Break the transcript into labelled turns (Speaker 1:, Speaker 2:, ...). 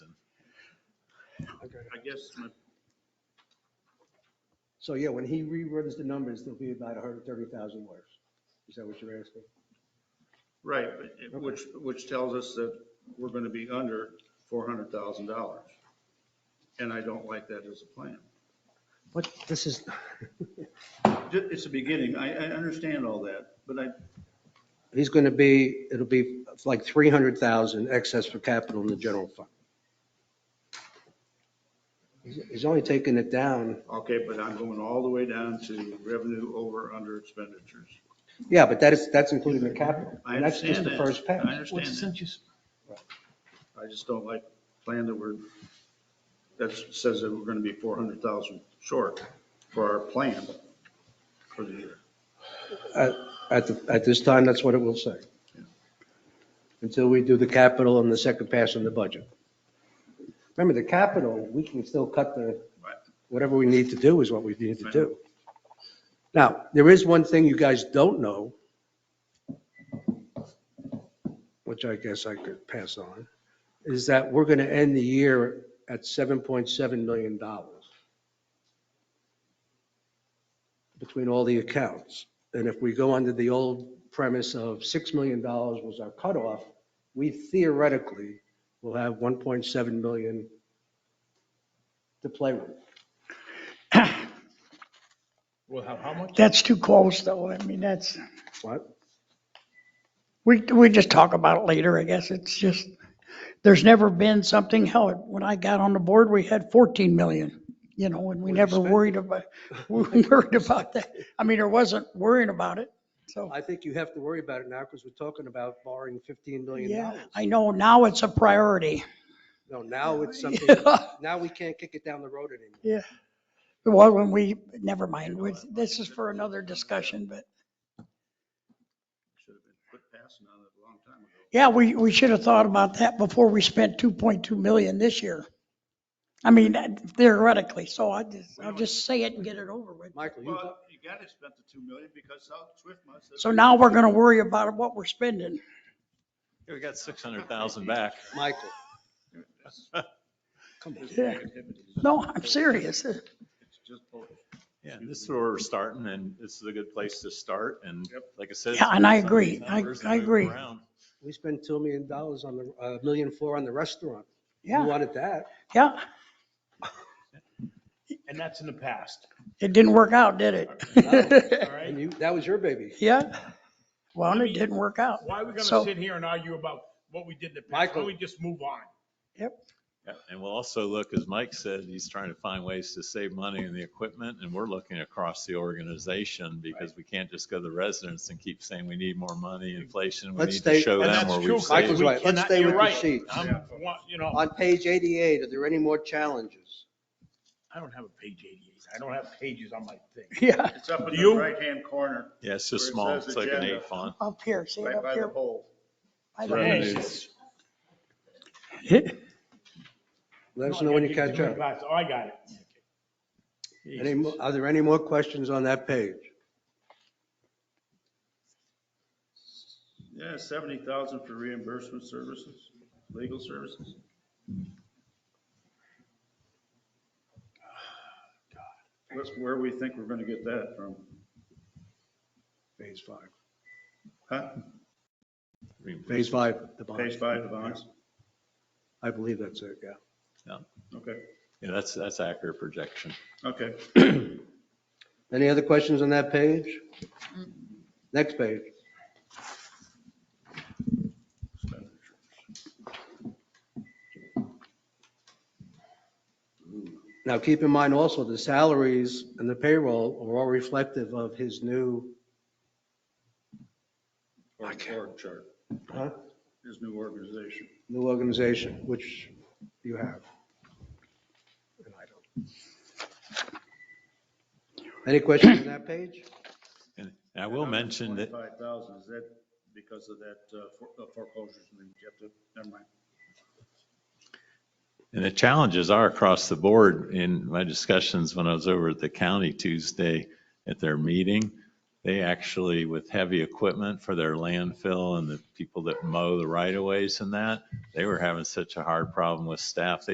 Speaker 1: Okay.
Speaker 2: I guess my
Speaker 3: So yeah, when he reruns the numbers, there'll be about 130,000 words. Is that what you're asking?
Speaker 2: Right, but it- which, which tells us that we're going to be under $400,000. And I don't like that as a plan.
Speaker 3: But this is,
Speaker 2: Ju- It's the beginning, I, I understand all that, but I,
Speaker 3: he's going to be, it'll be like 300,000 excess for capital in the general fund. He's he's only taking it down,
Speaker 2: okay, but I'm going all the way down to revenue over under expenditures.
Speaker 3: yeah, but that is, that's including the capital.
Speaker 2: I
Speaker 3: And that's just
Speaker 2: understand
Speaker 3: the
Speaker 2: that.
Speaker 3: first
Speaker 2: I
Speaker 3: pass.
Speaker 2: understand that. I just don't like the plan that we're, that says that we're going to be 400,000 short for our plan for the year.
Speaker 3: At, the- at this time, that's what it will say. Until we do the capital and the second pass on the budget. Remember, the capital, we can still cut the,
Speaker 2: Right.
Speaker 3: whatever we need to do is what we need to do. Now, there is one thing you guys don't know, which I guess I could pass on, is that we're going to end the year at $7.7 million between all the accounts. And if we go under the old premise of $6 million was our cutoff, we theoretically will have 1.7 million to play with.
Speaker 1: We'll have how much?
Speaker 4: That's too close, though. I mean, that's,
Speaker 3: What?
Speaker 4: we, we just talk about it later, I guess. It's just, there's never been something, hell, when I got on the board, we had 14 million, you know, and we never worried about, we worried about that. I mean, there wasn't worrying about it, so.
Speaker 3: I think you have to worry about it now because we're talking about borrowing $15 million.
Speaker 4: Yeah, I know, now it's a priority.
Speaker 3: No, now it's something,
Speaker 4: Yeah.
Speaker 3: now we can't kick it down the road anymore.
Speaker 4: Yeah. Well, when we, never mind, we- this is for another discussion, but
Speaker 2: Should have been quit passing on it a long time ago.
Speaker 4: yeah, we, we should have thought about that before we spent 2.2 million this year. I mean, theoretically, so I just, I'll just say it and get it over with.
Speaker 3: Michael, you,
Speaker 2: Well, you gotta spend the two million because South Swift must have.
Speaker 4: So now we're gonna worry about what we're spending.
Speaker 5: We got 600,000 back.
Speaker 3: Michael, come on.
Speaker 4: Yeah. No, I'm serious.
Speaker 2: It's just both.
Speaker 5: Yeah, this is where we're starting and this is a good place to start. And like I said.
Speaker 4: Yeah, and I
Speaker 5: some of
Speaker 4: agree.
Speaker 5: these
Speaker 4: I-
Speaker 5: numbers
Speaker 4: I
Speaker 5: move
Speaker 4: agree.
Speaker 5: around.
Speaker 3: We spent $2 million on the, uh, million four on the restaurant. You
Speaker 4: Yeah,
Speaker 3: wanted that.
Speaker 4: yeah.
Speaker 1: And that's in the past,
Speaker 4: It didn't work out, did
Speaker 1: all
Speaker 4: it?
Speaker 1: right?
Speaker 3: And you, that was your baby.
Speaker 4: Yeah. Well, it didn't work out.
Speaker 1: Why are we gonna
Speaker 4: So-
Speaker 1: sit here and argue about what we did in the past? Why
Speaker 3: Michael.
Speaker 1: don't we just move on?
Speaker 5: Yeah, And we'll also look, as Mike said, he's trying to find ways to save money in the equipment and we're looking across the organization because we can't just go to the residents and keep saying we need more money, inflation. We
Speaker 3: Let's
Speaker 5: need to
Speaker 3: stay-
Speaker 5: show
Speaker 1: And
Speaker 5: them
Speaker 1: that's
Speaker 5: where
Speaker 1: true.
Speaker 5: we've
Speaker 3: Michael's
Speaker 5: saved.
Speaker 1: We
Speaker 3: right. Let's
Speaker 1: cannot-
Speaker 3: stay
Speaker 1: you're
Speaker 3: with the
Speaker 1: right.
Speaker 3: sheets.
Speaker 1: I'm- want- You know,
Speaker 3: On page 88, are there any more challenges?
Speaker 1: I don't have a page eighty-eight. I don't have pages on my thing.
Speaker 4: Yeah,
Speaker 2: It's up in the
Speaker 1: You-
Speaker 2: right-hand corner,
Speaker 5: Yeah, it's just
Speaker 2: Where it
Speaker 5: small.
Speaker 2: says
Speaker 5: It's like an
Speaker 2: agenda.
Speaker 5: eight font.
Speaker 4: up here, see it
Speaker 2: right
Speaker 4: up
Speaker 2: by the
Speaker 4: here.
Speaker 2: hole.
Speaker 4: I don't know.
Speaker 5: Revenues.
Speaker 3: Let us know when you catch up.
Speaker 1: Oh, I got it.
Speaker 3: Any, mo- are there any more questions on that page?
Speaker 2: Yeah, seventy thousand for reimbursement services, legal services. That's where we think we're gonna get that from,
Speaker 3: Phase five.
Speaker 2: huh?
Speaker 3: Phase five, the bond.
Speaker 2: Page five, the bonds,
Speaker 3: I believe that's it, yeah.
Speaker 2: okay,
Speaker 5: Yeah, that's, that's accurate projection.
Speaker 2: okay.
Speaker 3: Any other questions on that page? Next page. Now, keep in mind also, the salaries and the payroll are all reflective of his new,
Speaker 2: Or org chart,
Speaker 3: huh,
Speaker 2: his new organization.
Speaker 3: new organization, which you have. And I don't. Any questions on that page?
Speaker 5: And I will mention that
Speaker 2: Twenty-five thousand, is that because of that uh, fore- uh, foreclosures and you have to, never mind.
Speaker 5: And the challenges are across the board. In my discussions when I was over at the county Tuesday at their meeting, they actually, with heavy equipment for their landfill and the people that mow the right of ways and that, they were having such a hard problem with staff. They